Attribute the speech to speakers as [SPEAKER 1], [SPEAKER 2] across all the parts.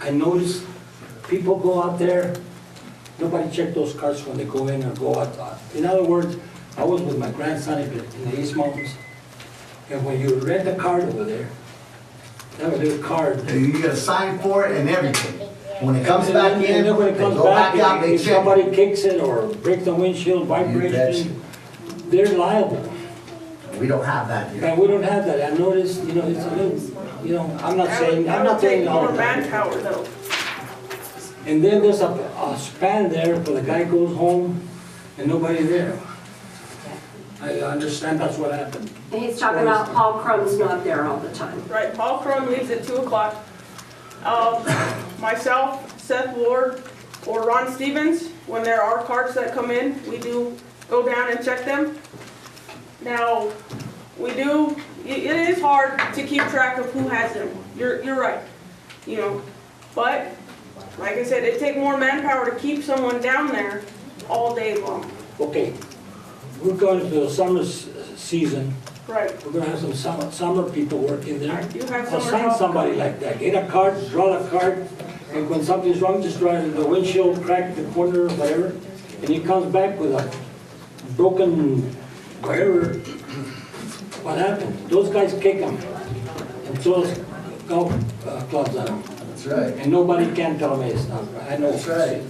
[SPEAKER 1] I noticed people go out there, nobody check those carts when they go in or go out. In other words, I was with my grandson in the- in the East Mountains, and when you rent a cart over there, they have a little card.
[SPEAKER 2] You get a sign for it and everything. When it comes
[SPEAKER 1] And
[SPEAKER 2] back
[SPEAKER 1] then-
[SPEAKER 2] in,
[SPEAKER 1] And
[SPEAKER 2] they
[SPEAKER 1] then when it comes
[SPEAKER 2] go back out,
[SPEAKER 1] back,
[SPEAKER 2] they
[SPEAKER 1] if
[SPEAKER 2] check.
[SPEAKER 1] somebody kicks it or breaks the windshield,
[SPEAKER 2] betcha.
[SPEAKER 1] vibration, they're liable.
[SPEAKER 2] We don't have that here.
[SPEAKER 1] And we don't have that. I noticed, you know, it's a little, you know, I'm not saying, I'm not saying all of that.
[SPEAKER 3] manpower though.
[SPEAKER 1] And then there's a, a span there for the guy goes home and nobody there. I understand that's what happened.
[SPEAKER 4] He's talking about Paul Crumb's not there all the time.
[SPEAKER 3] Right, Paul Crum leaves at two o'clock. Um, myself, Seth Ward, or Ron Stevens, when there are carts that come in, we do go down and check them. Now, we do, it, it is hard to keep track of who has them, you're, you're right, you know. But, like I said, it take more manpower to keep someone down there all day long.
[SPEAKER 1] Okay, we're going to the summer s- season.
[SPEAKER 3] Right,
[SPEAKER 1] We're gonna have some summer, summer people working there.
[SPEAKER 3] You have
[SPEAKER 1] I'll
[SPEAKER 3] summer
[SPEAKER 1] sign
[SPEAKER 3] help.
[SPEAKER 1] somebody like that. Get a cart, draw a cart, and when something's wrong, just drive the windshield, crack the corner, whatever. And he comes back with a broken whatever. What happened? Those guys kick him. And throw those golf uh, clubs at him.
[SPEAKER 2] That's right.
[SPEAKER 1] And nobody can tell me it's not right. I know.
[SPEAKER 2] That's right.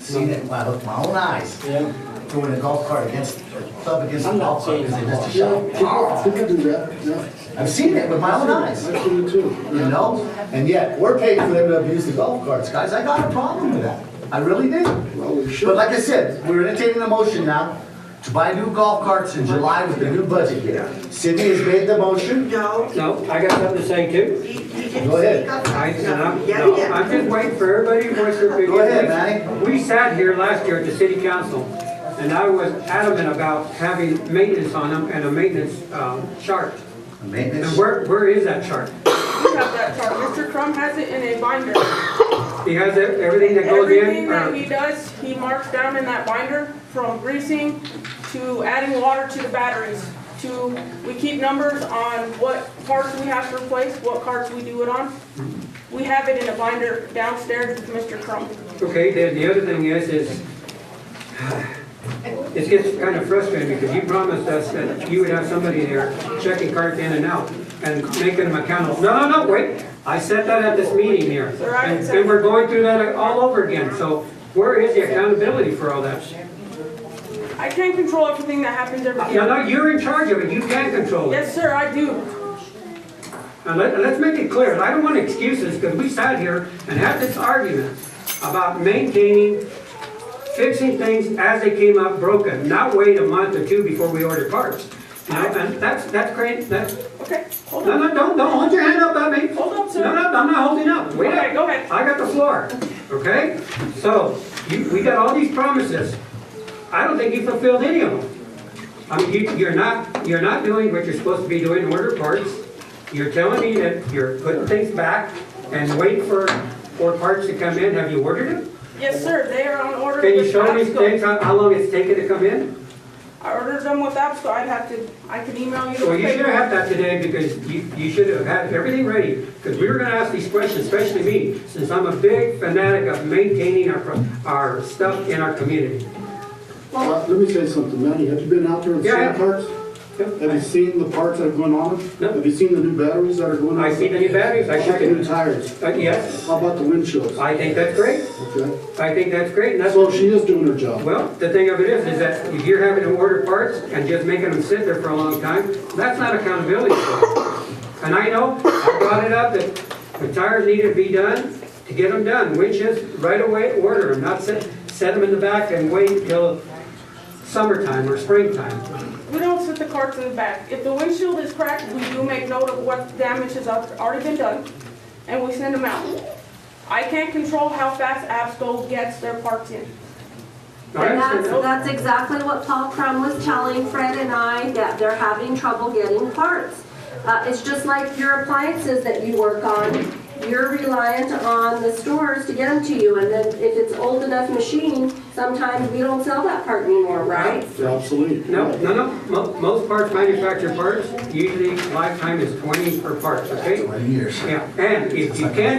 [SPEAKER 2] Seen it with my- with my own eyes,
[SPEAKER 1] Yeah.
[SPEAKER 2] throwing a golf cart against, a club against a
[SPEAKER 1] I'm not
[SPEAKER 2] golf cart
[SPEAKER 1] saying
[SPEAKER 2] because they missed a
[SPEAKER 1] golf.
[SPEAKER 2] shot.
[SPEAKER 5] People people do that, yeah.
[SPEAKER 2] I've seen it with my own eyes,
[SPEAKER 5] I've seen it too.
[SPEAKER 2] you know? And yet, we're paying for them to abuse the golf carts, guys. I got a problem with that. I really do.
[SPEAKER 5] Well, we should.
[SPEAKER 2] But like I said, we're entertaining a motion now to buy new golf carts in July with the new budget here. Sydney has made the motion.
[SPEAKER 6] No,
[SPEAKER 7] No, I got something to say too.
[SPEAKER 6] he, he didn't.
[SPEAKER 2] Go ahead.
[SPEAKER 7] I, no,
[SPEAKER 6] Yeah,
[SPEAKER 7] no,
[SPEAKER 6] yeah.
[SPEAKER 7] I'm just waiting for everybody to voice their opinion.
[SPEAKER 2] Go ahead, Manny.
[SPEAKER 7] We sat here last year at the city council, and I was adamant about having maintenance on them and a maintenance, um, chart. And
[SPEAKER 2] Maintenance.
[SPEAKER 7] where, where is that chart?
[SPEAKER 3] we have that chart, Mr. Crum has it in a binder.
[SPEAKER 7] He has e- everything that goes
[SPEAKER 3] Everything
[SPEAKER 7] in, uh,
[SPEAKER 3] that he
[SPEAKER 7] or,
[SPEAKER 3] does, he marks down in that binder, from greasing to adding water to the batteries, to, we keep numbers on what parts we have to replace, what carts we do it on. We have it in a binder downstairs with Mr. Crum.
[SPEAKER 7] okay, then the other thing is, is it gets kind of frustrating because you promised us that you would have somebody there checking carts in and out and making them accountable. No, no, no, wait, I said that at this meeting here.
[SPEAKER 3] Sir, I
[SPEAKER 7] And
[SPEAKER 3] said-
[SPEAKER 7] and we're going through that all over again, so where is the accountability for all that?
[SPEAKER 3] I can't control everything that happens every
[SPEAKER 7] No,
[SPEAKER 3] day.
[SPEAKER 7] no, you're in charge of it, you can control it.
[SPEAKER 3] Yes, sir, I do.
[SPEAKER 7] And let, and let's make it clear, and I don't want excuses, because we sat here and had this argument about maintaining, fixing things as they came up broken, not wait a month or two before we order parts. You know, and that's, that's great, that's,
[SPEAKER 3] Okay, hold
[SPEAKER 7] no,
[SPEAKER 3] on.
[SPEAKER 7] no, don't, don't hold your hand up at me.
[SPEAKER 3] Hold up, sir.
[SPEAKER 7] No, no, I'm not holding up. Wait
[SPEAKER 3] Okay,
[SPEAKER 7] up.
[SPEAKER 3] go ahead.
[SPEAKER 7] I got the floor, okay? So, you, we got all these promises. I don't think you fulfilled any of them. I mean, you, you're not, you're not doing what you're supposed to be doing in order parts. You're telling me that you're putting things back and waiting for, for parts to come in. Have you ordered them?
[SPEAKER 3] Yes, sir, they are on order
[SPEAKER 7] Can you
[SPEAKER 3] with
[SPEAKER 7] show me things,
[SPEAKER 3] Absco.
[SPEAKER 7] how, how long it's taken to come in?
[SPEAKER 3] I ordered them with Absco, I'd have to, I could email you the
[SPEAKER 7] Well, you should have
[SPEAKER 3] paper.
[SPEAKER 7] had that today because you, you should have had everything ready, because we were gonna ask these questions, especially me, since I'm a big fanatic of maintaining our, pro- our stuff in our community.
[SPEAKER 5] Uh, Let me say something, Manny, have you been out there and
[SPEAKER 7] Yeah, I
[SPEAKER 5] seen
[SPEAKER 7] have.
[SPEAKER 5] parts? Have
[SPEAKER 7] Uh,
[SPEAKER 5] you seen the parts that are going on?
[SPEAKER 7] No.
[SPEAKER 5] Have you seen the new batteries that are going on?
[SPEAKER 7] I see the new batteries, I
[SPEAKER 5] How
[SPEAKER 7] shook
[SPEAKER 5] about the new
[SPEAKER 7] it.
[SPEAKER 5] tires?
[SPEAKER 7] Uh, yes,
[SPEAKER 5] How about the windshields?
[SPEAKER 7] I think that's great,
[SPEAKER 5] Okay,
[SPEAKER 7] I think that's great, and that's,
[SPEAKER 5] so she is doing her job.
[SPEAKER 7] well, the thing of it is, is that if you're having to order parts and just making them sit there for a long time, that's not accountability. And I know, I brought it up, that the tires need to be done, to get them done, winches, right away, order them, not set, set them in the back and wait until summertime or springtime.
[SPEAKER 3] We don't sit the carts in the back. If the windshield is cracked, we do make note of what damage has al- already been done, and we send them out. I can't control how fast Absco gets their parts in.
[SPEAKER 7] All right,
[SPEAKER 4] And that's,
[SPEAKER 7] so-
[SPEAKER 4] that's exactly what Paul Crum was telling Fred and I, that they're having trouble getting parts. Uh, it's just like your appliances that you work on, you're reliant on the stores to get them to you. And then if it's old enough machine, sometimes we don't sell that part anymore, right?
[SPEAKER 5] They're obsolete.
[SPEAKER 7] No, no, no, Mo- most parts, manufactured parts, usually lifetime is twenty per part, okay?
[SPEAKER 2] Twenty years.
[SPEAKER 7] Yeah, and if you can't